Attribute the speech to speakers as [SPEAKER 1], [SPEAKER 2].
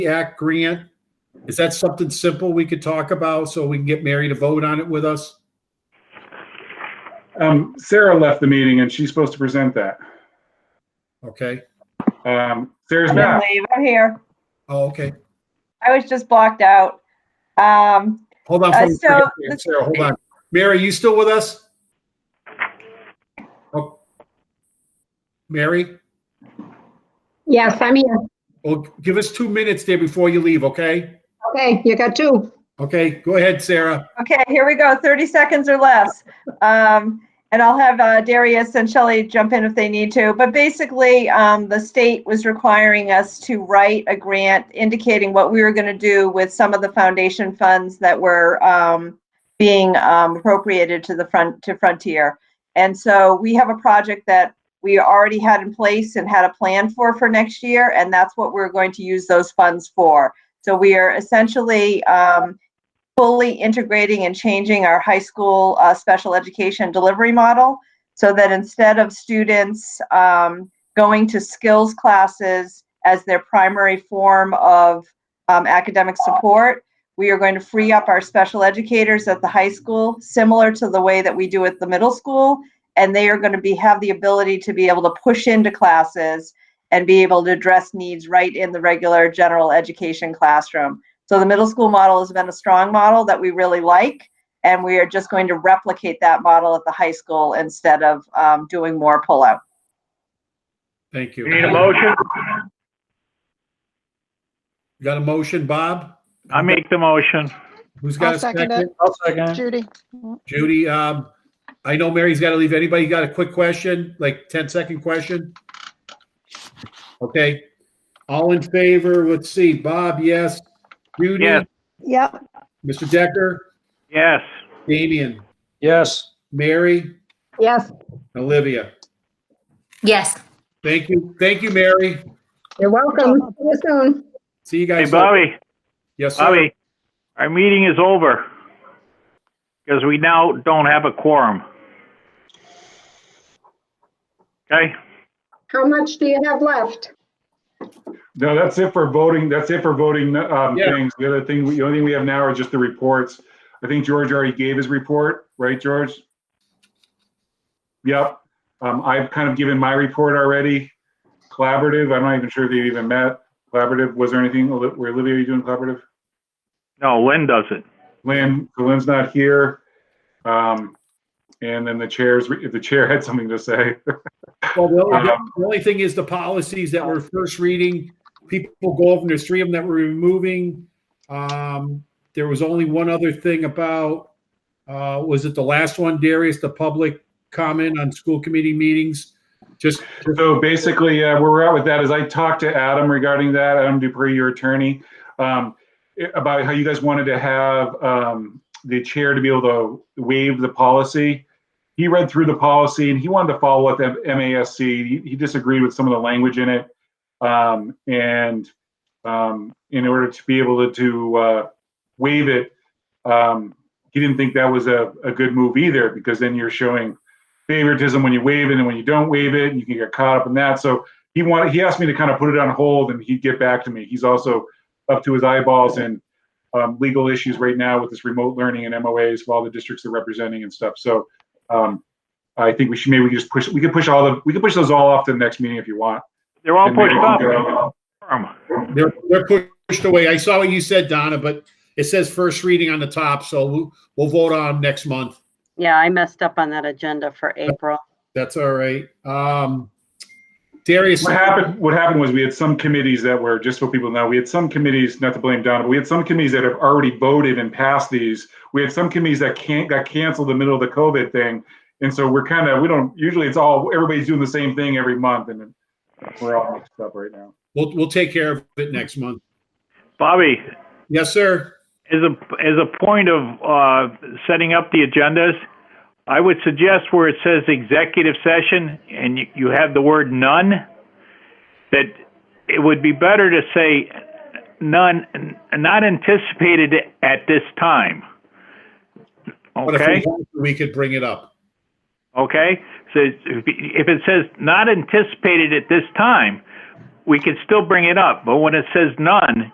[SPEAKER 1] Act grant? Is that something simple we could talk about so we can get Mary to vote on it with us?
[SPEAKER 2] Um, Sarah left the meeting and she's supposed to present that.
[SPEAKER 1] Okay.
[SPEAKER 2] Um, Sarah's
[SPEAKER 3] I didn't
[SPEAKER 2] back.
[SPEAKER 3] leave. I'm here.
[SPEAKER 1] Oh, okay.
[SPEAKER 3] I was just blocked out. Um,
[SPEAKER 1] Hold on. for
[SPEAKER 3] Uh,
[SPEAKER 1] a
[SPEAKER 3] so
[SPEAKER 1] second,
[SPEAKER 3] the-
[SPEAKER 1] Sarah, hold on. Mary, you still with us? Oh. Mary,
[SPEAKER 4] Yes, I'm here.
[SPEAKER 1] well, give us two minutes there before you leave, okay?
[SPEAKER 4] Okay, you got two.
[SPEAKER 1] Okay, go ahead, Sarah.
[SPEAKER 3] okay, here we go. 30 seconds or less. Um, and I'll have uh, Darius and Shelley jump in if they need to. But basically, um, the state was requiring us to write a grant indicating what we were going to do with some of the foundation funds that were um, being um, appropriated to the front to Frontier. And so we have a project that we already had in place and had a plan for for next year, and that's what we're going to use those funds for. So we are essentially um, fully integrating and changing our high school uh, special education delivery model so that instead of students um, going to skills classes as their primary form of um, academic support, we are going to free up our special educators at the high school, similar to the way that we do at the middle school, and they are going to be have the ability to be able to push into classes and be able to address needs right in the regular general education classroom. So the middle school model has been a strong model that we really like, and we are just going to replicate that model at the high school instead of um, doing more pullout.
[SPEAKER 1] Thank you.
[SPEAKER 5] We need a motion?
[SPEAKER 1] You Got a motion, Bob?
[SPEAKER 5] I make the motion.
[SPEAKER 1] Who's got
[SPEAKER 6] I'll
[SPEAKER 1] a
[SPEAKER 6] second
[SPEAKER 1] second?
[SPEAKER 6] it.
[SPEAKER 1] I'll second
[SPEAKER 6] Judy.
[SPEAKER 1] Judy, um, I know Mary's got to leave. Anybody got a quick question, like 10 second question? Okay. All in favor? Let's see. Bob, yes. Judy,
[SPEAKER 5] Yes.
[SPEAKER 6] Yep,
[SPEAKER 1] Mr. Decker,
[SPEAKER 5] Yes.
[SPEAKER 1] Damian,
[SPEAKER 7] Yes,
[SPEAKER 1] Mary,
[SPEAKER 4] Yes,
[SPEAKER 1] Olivia.
[SPEAKER 8] Yes,
[SPEAKER 1] Thank you. Thank you, Mary.
[SPEAKER 4] you're welcome. See you soon.
[SPEAKER 1] See you
[SPEAKER 5] Hey,
[SPEAKER 1] guys.
[SPEAKER 5] Bobby,
[SPEAKER 1] Yes, sir.
[SPEAKER 5] Bobby, our meeting is over. Because we now don't have a quorum. Okay,
[SPEAKER 4] How much do you have left?
[SPEAKER 2] No, that's it for voting. That's it for voting, um,
[SPEAKER 1] Yeah.
[SPEAKER 2] things. The other thing, the only thing we have now are just the reports. I think George already gave his report, right, George? Yep. Um, I've kind of given my report already. Collaborative, I'm not even sure if they even met. Collaborative, was there anything, Oli- were Olivia, you doing collaborative?
[SPEAKER 5] no, Lynn does it.
[SPEAKER 2] Lynn, so Lynn's not here. Um, and then the chairs, if the chair had something to say.
[SPEAKER 1] Well, the only,
[SPEAKER 2] Um,
[SPEAKER 1] the only thing is the policies that we're first reading, people go over, and there's three of them that we're removing. Um, there was only one other thing about, uh, was it the last one, Darius, the public comment on school committee meetings? Just,
[SPEAKER 2] So basically, uh, where we're at with that is I talked to Adam regarding that, Adam Dupree, your attorney, um, i- about how you guys wanted to have, um, the chair to be able to waive the policy. He read through the policy and he wanted to follow up with MASC. He- He disagreed with some of the language in it. Um, and, um, in order to be able to, to, uh, waive it, um, he didn't think that was a, a good move either, because then you're showing favoritism when you waive it and when you don't waive it, and you can get caught up in that. So he wanted, he asked me to kind of put it on hold and he'd get back to me. He's also up to his eyeballs in um, legal issues right now with this remote learning and MOAs while the districts are representing and stuff. So um, I think we should, maybe we just push, we could push all the, we could push those all off to the next meeting if you want.
[SPEAKER 5] They're all
[SPEAKER 2] And maybe
[SPEAKER 5] pushed
[SPEAKER 2] we can
[SPEAKER 5] up.
[SPEAKER 2] go-
[SPEAKER 5] Quorum.
[SPEAKER 1] they're, they're pushed away. I saw what you said, Donna, but it says first reading on the top, so we'll, we'll vote on 'em next month.
[SPEAKER 9] Yeah, I messed up on that agenda for April.
[SPEAKER 1] That's all right. Um, Darius,
[SPEAKER 2] What happened, what happened was we had some committees that were, just so people know, we had some committees, not to blame Donna, but we had some committees that have already voted and passed these. We had some committees that can't, got canceled in the middle of the COVID thing. And so we're kind of, we don't, usually it's all, everybody's doing the same thing every month and then we're all mixed up right now.
[SPEAKER 1] we'll, we'll take care of it next month.
[SPEAKER 5] Bobby,
[SPEAKER 1] Yes, sir.
[SPEAKER 5] as a, as a point of, uh, setting up the agendas, I would suggest where it says executive session and you, you have the word none, that it would be better to say none, not anticipated at this time.
[SPEAKER 1] But if we
[SPEAKER 5] Okay,
[SPEAKER 1] have to, We could bring it up.
[SPEAKER 5] okay? So if if it says not anticipated at this time, we can still bring it up, but when it says none,